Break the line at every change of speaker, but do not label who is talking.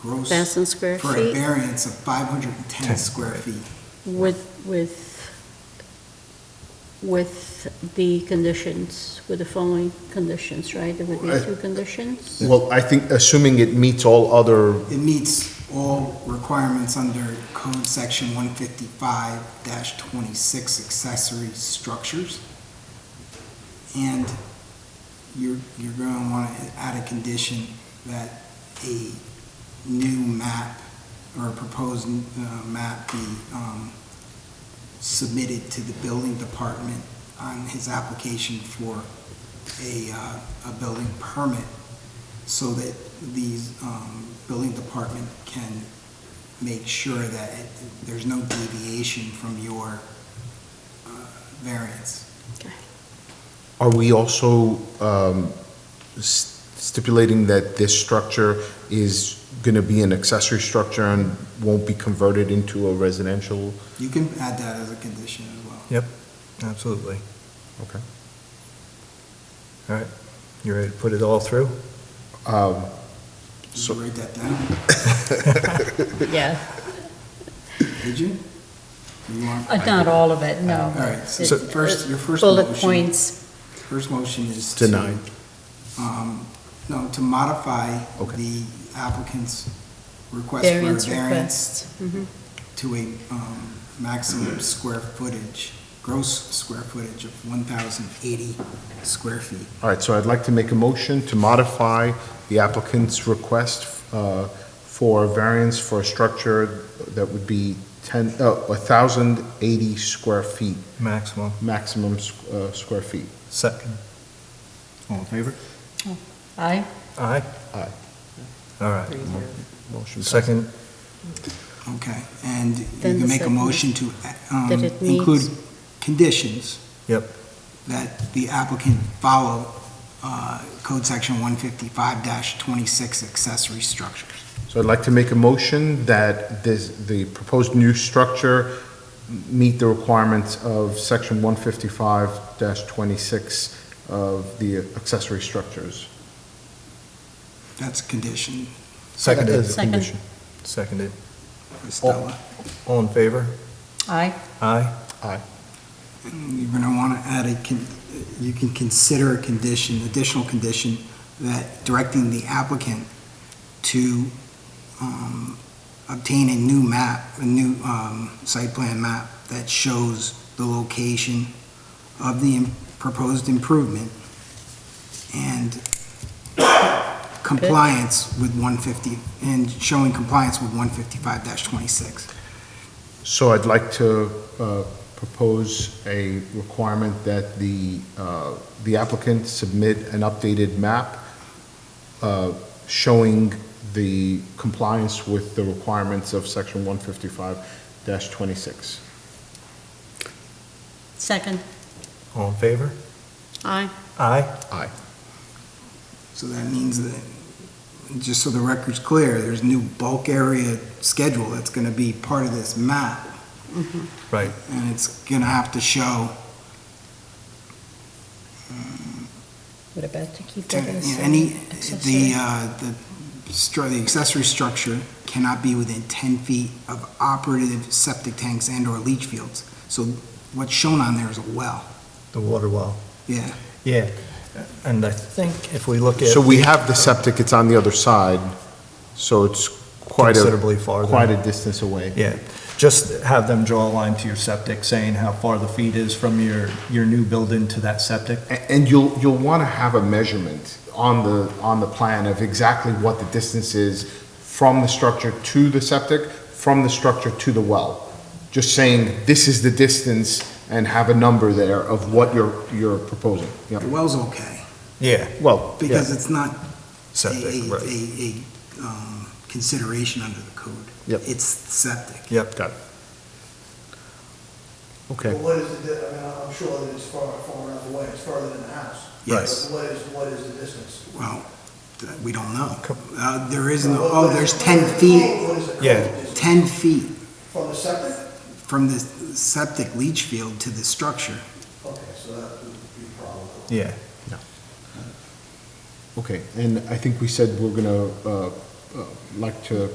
gross
Thousand square
for a
feet
variance of 510
Ten.
square feet.
with, with, with the conditions, with the following conditions, right? There would be
Right.
two conditions?
Well, I think assuming it meets all other,
It meets all requirements under code section 155-26 accessory structures. And you're, you're going to want to add a condition that a new map or a proposed uh, map be um, submitted to the building department on his application for a, uh, a building permit so that these, um, building department can make sure that it- there's no deviation from your, uh, variance.
are we also um, s- stipulating that this structure is going to be an accessory structure and won't be converted into a residential?
You can add that as a condition as well.
Yep, absolutely.
Okay.
All right, you ready to put it all through?
Um,
Did
So-
you write that down?
Yeah,
Did you? You want?
Uh, not all of it, no.
All right, so
It-
first- your first
Bullet
motion-
points,
First motion is to.
Denied.
Um, no, to modify
Okay.
the applicant's request for a
variance
variance
requests.
Mm-hmm.
to a um, maximum square footage, gross square footage of 1,080 square feet.
All right, so I'd like to make a motion to modify the applicant's request uh, for variance for a structure that would be 10, uh, 1,080 square feet,
Maximum.
maximum s- uh, square feet.
Second. All in favor?
Aye,
Aye.
Aye.
All right.
Motion passes.
Second,
Okay, and you
Then
can
the
make a
second-
motion to um,
that it
include
meets-
conditions
yep,
that the applicant follow uh, Code Section 155-26 accessory structures.
So I'd like to make a motion that this, the proposed new structure meet the requirements of section 155-26 of the accessory structures.
That's a condition,
seconded,
As a
Second.
condition.
seconded.
Stella.
All in favor?
aye,
Aye.
You're going to want to add a, con- you can consider a condition, additional condition, that directing the applicant to um, obtain a new map, a new um, site plan map that shows the location of the im- proposed improvement and compliance with 150, and showing compliance with 155-26.
So I'd like to uh, propose a requirement that the, uh, the applicant submit an updated map uh, showing the compliance with the requirements of section 155-26.
second,
All in favor?
Aye.
Aye.
Aye.
So that means that, just so the record's clear, there's new bulk area schedule that's gonna be part of this map,
Right,
and it's gonna have to show, um,
what about to keep
to-
that as an
any, the,
accessory?
uh, the, stru- the accessory structure cannot be within ten feet of operative septic tanks and/or leach fields. So what's shown on there is a well,
the water well.
yeah.
Yeah, and I think if we look at.
So we have the septic, it's on the other side, so it's quite a,
Considerably farther.
quite a distance away.
Yeah, just have them draw a line to your septic saying how far the feet is from your, your new building to that septic.
A- And you'll, you'll want to have a measurement on the, on the plan of exactly what the distance is from the structure to the septic, from the structure to the well. Just saying, this is the distance, and have a number there of what you're, you're proposing. Yep.
The well's okay,
Yeah.
Well, yeah,
because it's not a,
Septic,
a,
right.
a, a, um, consideration under the code.
Yep.
It's septic.
Yep.
got it. Okay.
But what is the, di- I mean, I'm sure that it's far, far enough away, it's farther than the house.
Yes.
But what is, what is the distance?
Well, th- we don't know.
Co-
Uh, There is no,
What-
oh,
what
there's
is- what
10
is the
feet,
code? What is the code?
Yeah.
Is it
10 feet
From the septic?
from the septic leach field to the structure.
Okay, so that would be a problem.
Yeah,
Okay, and I think we said we're going to, uh, like to